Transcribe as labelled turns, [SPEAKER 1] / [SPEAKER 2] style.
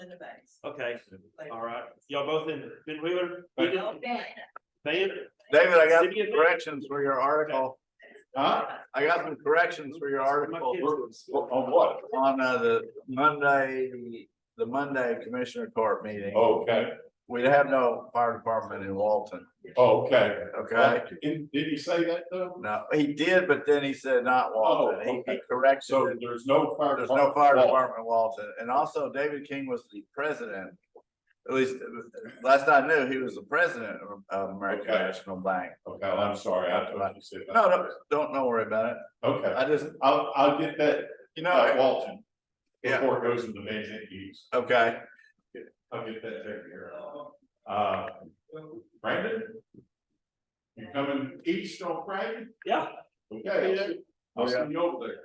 [SPEAKER 1] the banks.
[SPEAKER 2] Okay,
[SPEAKER 1] Like-
[SPEAKER 2] all right. Y'all both in Ben Wheeler?
[SPEAKER 3] David, I got
[SPEAKER 2] City of-
[SPEAKER 3] some corrections for your article. Huh? I got some corrections for your article.
[SPEAKER 4] On what?
[SPEAKER 3] On uh, the Monday, the Monday Commissioner Court meeting.
[SPEAKER 4] Okay,
[SPEAKER 3] We'd have no fire department in Walton,
[SPEAKER 4] okay.
[SPEAKER 3] okay?
[SPEAKER 4] And did he say that though?
[SPEAKER 3] No, he did, but then he said not Walton. He- He
[SPEAKER 4] Oh, okay.
[SPEAKER 3] corrected
[SPEAKER 4] So Oh.
[SPEAKER 3] it.
[SPEAKER 4] there's no fire.
[SPEAKER 3] There's no fire
[SPEAKER 4] Well,
[SPEAKER 3] department in Walton. And also David King was the president. At least, uh, last I knew, he was the president of- of American
[SPEAKER 4] Okay.
[SPEAKER 3] National Bank.
[SPEAKER 4] Okay, well, I'm sorry, I thought you said. that.
[SPEAKER 3] No, no, don't, don't worry about it.
[SPEAKER 4] Okay,
[SPEAKER 3] I just,
[SPEAKER 4] I'll, I'll get that,
[SPEAKER 3] you
[SPEAKER 4] uh,
[SPEAKER 3] know,
[SPEAKER 4] Walton.
[SPEAKER 3] Yeah.
[SPEAKER 4] Before it goes into vacant use,
[SPEAKER 3] okay.
[SPEAKER 4] I'll get that taken care of. Uh, Brandon? You coming east on Friday?
[SPEAKER 2] Yeah.
[SPEAKER 4] Okay, I'll see you over there.